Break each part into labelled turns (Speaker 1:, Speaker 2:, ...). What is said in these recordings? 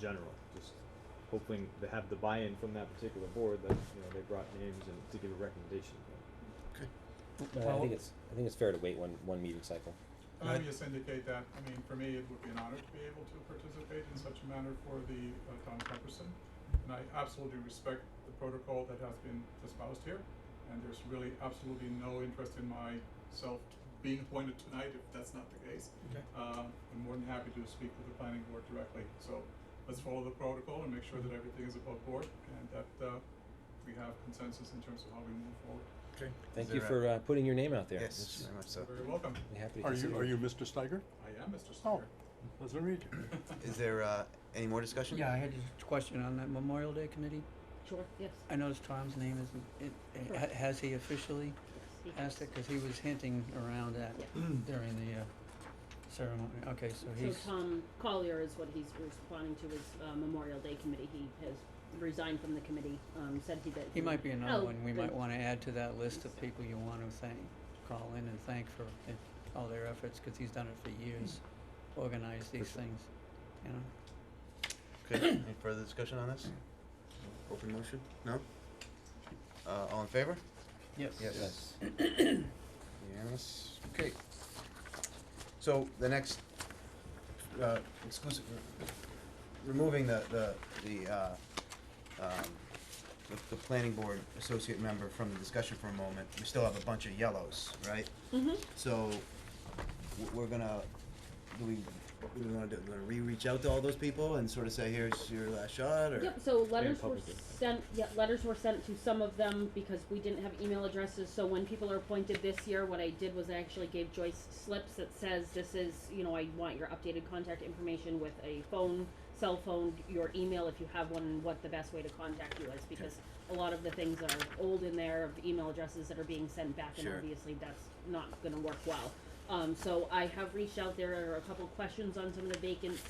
Speaker 1: general, just hoping to have the buy-in from that particular board that, you know, they brought names and to give a recommendation.
Speaker 2: But Uh, I think it's, I think it's fair to wait one, one meeting cycle.
Speaker 3: Can
Speaker 4: Um,
Speaker 3: I just indicate that, I mean, for me, it would be an honor to be able to participate in such a manner for the uh, Tom Pepperson. And I absolutely respect the protocol that has been espoused here, and there's really absolutely no interest in myself being appointed tonight if that's not the case.
Speaker 4: Okay.
Speaker 3: Um, I'm more than happy to speak with the planning board directly, so let's follow the protocol and make sure
Speaker 4: Mm-hmm.
Speaker 3: that everything is above board and that uh, we have consensus in terms of how we move forward.
Speaker 4: Okay.
Speaker 2: Thank
Speaker 5: there
Speaker 2: you
Speaker 5: a-
Speaker 2: for, uh, putting your name out there.
Speaker 5: Yes, very much so.
Speaker 3: You're very welcome.
Speaker 2: We're Happy to
Speaker 4: Are
Speaker 2: consider
Speaker 4: you,
Speaker 2: it.
Speaker 4: are you Mr. Steiger?
Speaker 3: I am Mr.
Speaker 4: Oh.
Speaker 3: Stecker.
Speaker 4: Nice to meet you.
Speaker 5: Is there uh, any more discussion?
Speaker 6: Yeah, I had a question on that Memorial Day committee.
Speaker 7: Sure, yes.
Speaker 6: I noticed Tom's name isn't, it,
Speaker 7: Sure.
Speaker 6: ha- has he officially
Speaker 7: he
Speaker 6: asked
Speaker 7: has.
Speaker 6: it? Cause he was hinting around that during the, uh, ceremony. Okay, so
Speaker 7: So
Speaker 6: he's,
Speaker 7: Tom Collier is what he's responding to his uh, Memorial Day committee. He has resigned from the committee, um, said he that.
Speaker 6: he might be
Speaker 7: Oh,
Speaker 6: another one we might
Speaker 7: good.
Speaker 6: wanna add to that list of people you wanna thank, call in and thank for it- all their efforts, cause he's done it for years.
Speaker 7: Mm.
Speaker 6: Organize these things, you know?
Speaker 5: Okay, any further discussion on this? Open motion? No? Uh, all in favor?
Speaker 6: Yes.
Speaker 5: Yes. Unanimous, okay. So the next, uh, exclusive, removing the, the, the, uh, um, the, the planning board associate member from the discussion for a moment, we still have a bunch of yellows, right?
Speaker 7: Mhm.
Speaker 5: So, w- we're gonna, do we, what do we wanna do, we're gonna re-reach out to all those people and sort of say, here's your last shot, or?
Speaker 7: Yep, so letters were
Speaker 1: public input.
Speaker 7: sent, yeah, letters were sent to some of them because we didn't have email addresses, so when people are appointed this year, what I did was I actually gave Joyce slips that says, this is, you know, I want your updated contact information with a phone, cell phone, your email if you have one, and what the best way to contact you is, because a lot of the things are old in there of email addresses that are being sent back, and
Speaker 5: Sure.
Speaker 7: obviously that's not gonna work well. Um, so I have reached out, there are a couple questions on some of the vacant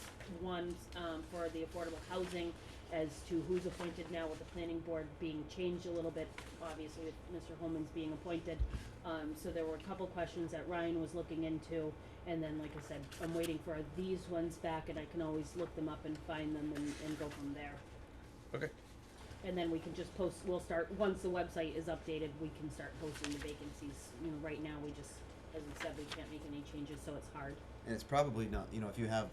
Speaker 7: ones, um, for the affordable housing as to who's appointed now with the planning board being changed a little bit, obviously with Mr. Holman's being appointed. Um, so there were a couple questions that Ryan was looking into, and then, like I said, I'm waiting for these ones back, and I can always look them up and find them and, and go from there.
Speaker 5: Okay.
Speaker 7: And then we can just post, we'll start, once the website is updated, we can start posting the vacancies, you know, right now, we just, as we said, we can't make any changes, so it's hard.
Speaker 5: and it's probably not you know if you have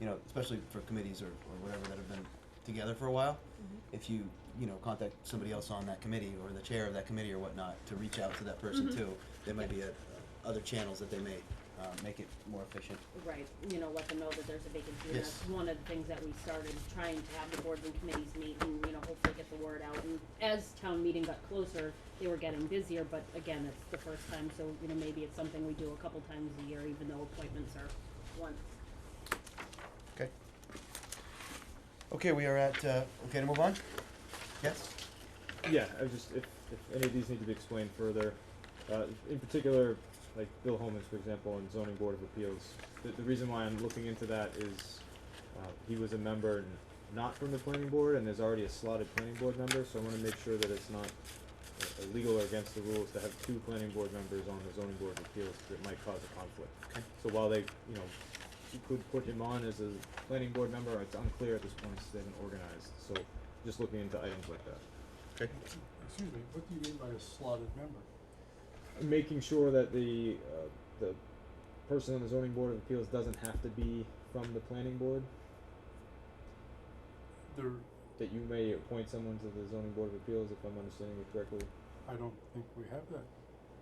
Speaker 5: you know especially for committees or, or whatever that have been together for a while if you you know contact somebody else on that committee or the chair of that committee or whatnot to reach out to that person too there might be a, other channels that they may uh, make it more efficient
Speaker 7: Right, you know, let them know that there's a vacancy, and
Speaker 5: Yes.
Speaker 7: that's one of the things that we started, trying to have the boards and committees meet and, you know, hopefully get the word out, and as town meeting got closer, they were getting busier, but again, it's the first time, so, you know, maybe it's something we do a couple times a year, even though appointments are once.
Speaker 5: okay okay we are at uh, okay to move on yes
Speaker 1: Yeah, I was just, if, if any of these need to be explained further, uh, in particular, like Bill Holman's, for example, and zoning board of appeals, the, the reason why I'm looking into that is, uh, he was a member n- not from the planning board, and there's already a slotted planning board member, so I wanna make sure that it's not uh, illegal or against the rules to have two planning board members on the zoning board of appeals, 'cause it might cause a conflict.
Speaker 5: Okay.
Speaker 1: So while they, you know, you could put him on as a planning board member, it's unclear at this point, it's been organized, so just looking into items like that.
Speaker 5: okay
Speaker 4: Excuse me, what do you mean by a slotted member?
Speaker 1: making sure that the uh, the person on the zoning board of appeals doesn't have to be from the planning board.
Speaker 4: There,
Speaker 1: That you may appoint someone to the zoning board of appeals, if I'm understanding it correctly,
Speaker 4: I don't think we have that.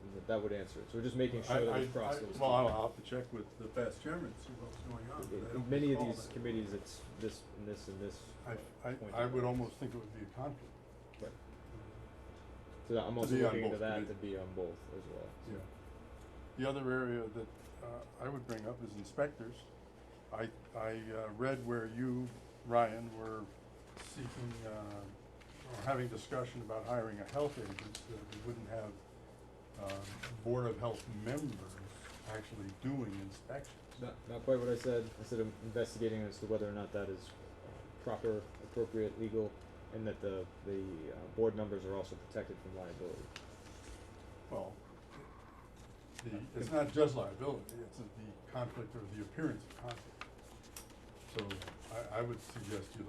Speaker 1: and that, that would answer it. So we're just making sure
Speaker 4: I-
Speaker 1: that
Speaker 4: I-
Speaker 1: it's
Speaker 4: I-
Speaker 1: crossed. those
Speaker 4: Well, I'll
Speaker 1: two.
Speaker 4: I'll have to check with the past chairman, see what's going on. but I
Speaker 1: In-
Speaker 4: don't
Speaker 1: in many of
Speaker 4: recall
Speaker 1: these
Speaker 4: that.
Speaker 1: committees, it's this and this and this.
Speaker 4: I,
Speaker 1: point
Speaker 4: I, I
Speaker 1: of
Speaker 4: would
Speaker 1: it.
Speaker 4: almost think it would be a conflict,
Speaker 1: Right. So that- I'm also
Speaker 4: be on
Speaker 1: looking into
Speaker 4: both
Speaker 1: that to
Speaker 4: committees.
Speaker 1: be on both as well.
Speaker 4: yeah. The other area that, uh, I would bring up is inspectors. I, I, uh, read where you, Ryan, were seeking, uh, or having discussion about hiring a health agent, so that we wouldn't have, uh, Board of Health members actually doing inspections.
Speaker 1: Not, not quite what I said. I said I'm investigating as to whether or not that is uh, proper, appropriate, legal, and that the the uh, board members are also protected from liability.
Speaker 4: Well, the, it's not just liability, it's the conflict or the appearance of conflict. So I, I would suggest you look